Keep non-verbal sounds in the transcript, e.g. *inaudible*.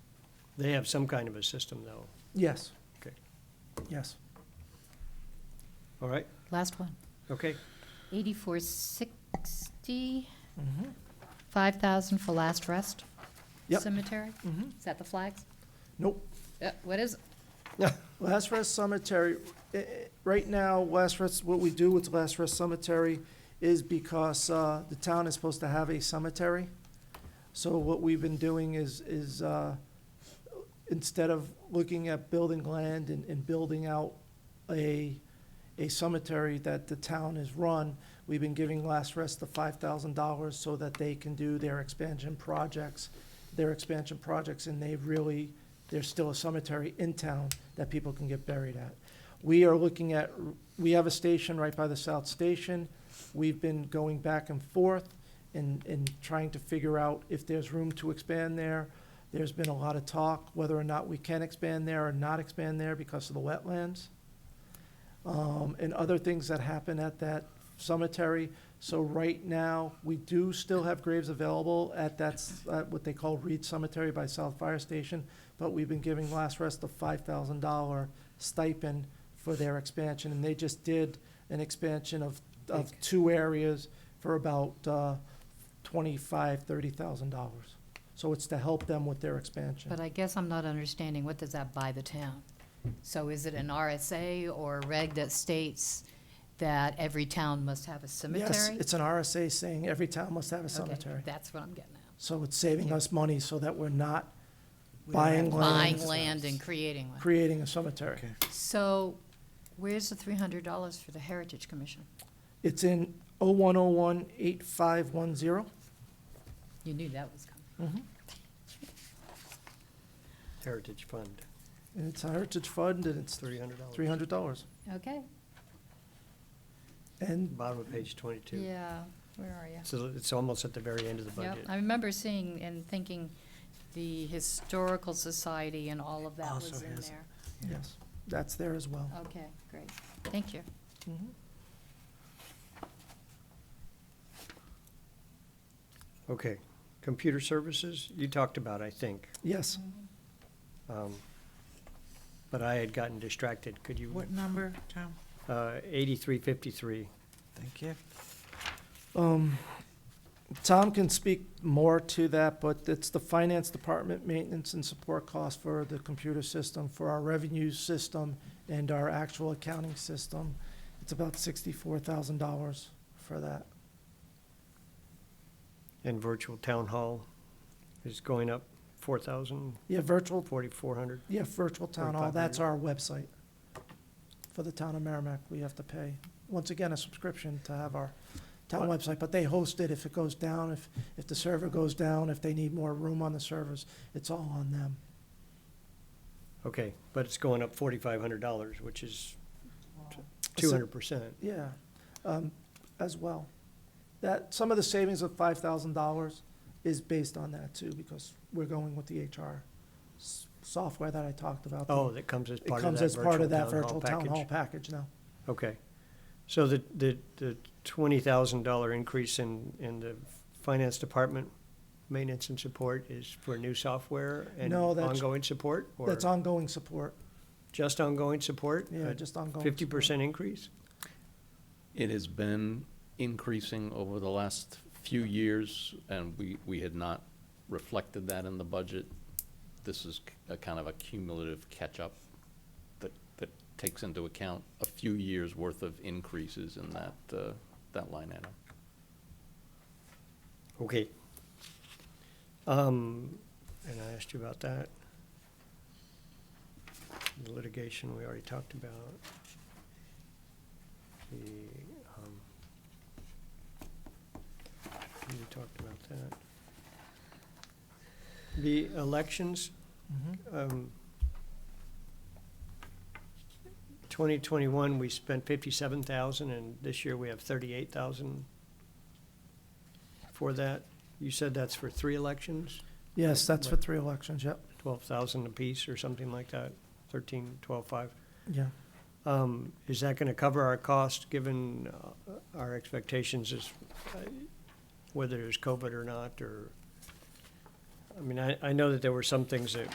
They have some kind of a system, though. Yes. Okay. Yes. All right, Last one. okay. *laughs* 8460, 5,000 for last rest Mm-hmm. Yep. cemetery? Mhm. Is that the flags? Nope. Uh, What is, Last Rest Cemetery, eh, eh, right now, Last Rest, what we do with Last Rest Cemetery is because uh, the town is supposed to have a cemetery. So what we've been doing is, is uh, instead of looking at building land and, and building out a, a cemetery that the town has run, we've been giving Last Rest the five thousand dollars so that they can do their expansion projects, their expansion projects, and they've really, there's still a cemetery in town that people can get buried at. We are looking at, we have a station right by the South Station. We've been going back and forth and, and trying to figure out if there's room to expand there. There's been a lot of talk whether or not we can expand there or not expand there because of the wetlands. Um, and other things that happen at that cemetery. So right now, we do still have graves available at that, s- at what they call Reed Cemetery by South Fire Station but we've been giving Last Rest a five thousand dollar stipend for their expansion, and they just did an expansion of, of two areas for about, uh, twenty-five, thirty thousand dollars. So it's to help them with their expansion. but I guess I'm not understanding, what does that buy the town? So is it an RSA or a reg that states that every town must have a Yes, cemetery? it's an RSA saying every town must have a Okay, cemetery, That's what I'm getting at. so it's saving us money so that we're not We don't buying have to- land, Buying land and creating one. creating a cemetery. Okay. So where's the $300 for the Heritage Commission? It's in oh one oh one eight five one zero. You knew that was coming. Heritage Fund, And it's a Heritage Fund, and it's three hundred dollars. three hundred dollars. Okay, And Bottom of page twenty-two. yeah, where are you? So it's almost at the very end of the Yeah, budget. I remember seeing and thinking the Historical Society and all of that Also was in has- there. Yes, that's there as well. Mm-hmm. Okay, great. Thank you. Okay, computer services, you talked about, I think. Yes, um, But I had gotten distracted. Could you, What number, Tom? uh, eighty-three fifty-three? Thank you. um, Tom can speak more to that, but it's the finance department maintenance and support cost for the computer system, for our revenue system and our actual accounting system. It's about sixty-four thousand dollars for that. And virtual town hall is going up four thousand, Yeah, virtual, forty-four hundred. yeah, virtual town hall, that's our website for the town of Merrimack. We have to pay, once again, a subscription to have our town What? website, but they host it if it goes down, if, if the server goes down, if they need more room on the servers, it's all on them. Okay, but it's going up forty-five hundred dollars, which is So- two hundred percent. Yeah, um, as well. That, some of the savings of five thousand dollars is based on that too, because we're going with the HR s- software that I talked about. Oh, that comes as It part of comes that as part virtual of that town virtual hall town hall package? package now. Okay. So the, the, the twenty thousand dollar increase in, in the finance department maintenance and support is for new software and No, that's- ongoing support? or That's ongoing support, Just ongoing support? yeah, just ongoing. Fifty support. percent increase? It has been increasing over the last few years, and we, we had not reflected that in the budget. This is c- a kind of a cumulative catch-up that, that takes into account a few years' worth of increases in that, uh, that line item. Okay. Um, and I asked you about that. The litigation we already talked about. The, um, we talked about that. The elections, Mhm. um, twenty twenty-one, we spent fifty-seven thousand, and this year we have thirty-eight thousand for that. You said that's for three elections, Yes, that's for Right. three elections, yep, twelve thousand apiece or something like that, thirteen, twelve, five. yeah. Um, is that gonna cover our cost, given uh, our expectations is, uh, whether there's COVID or not, or? I mean, I, I know that there were some things that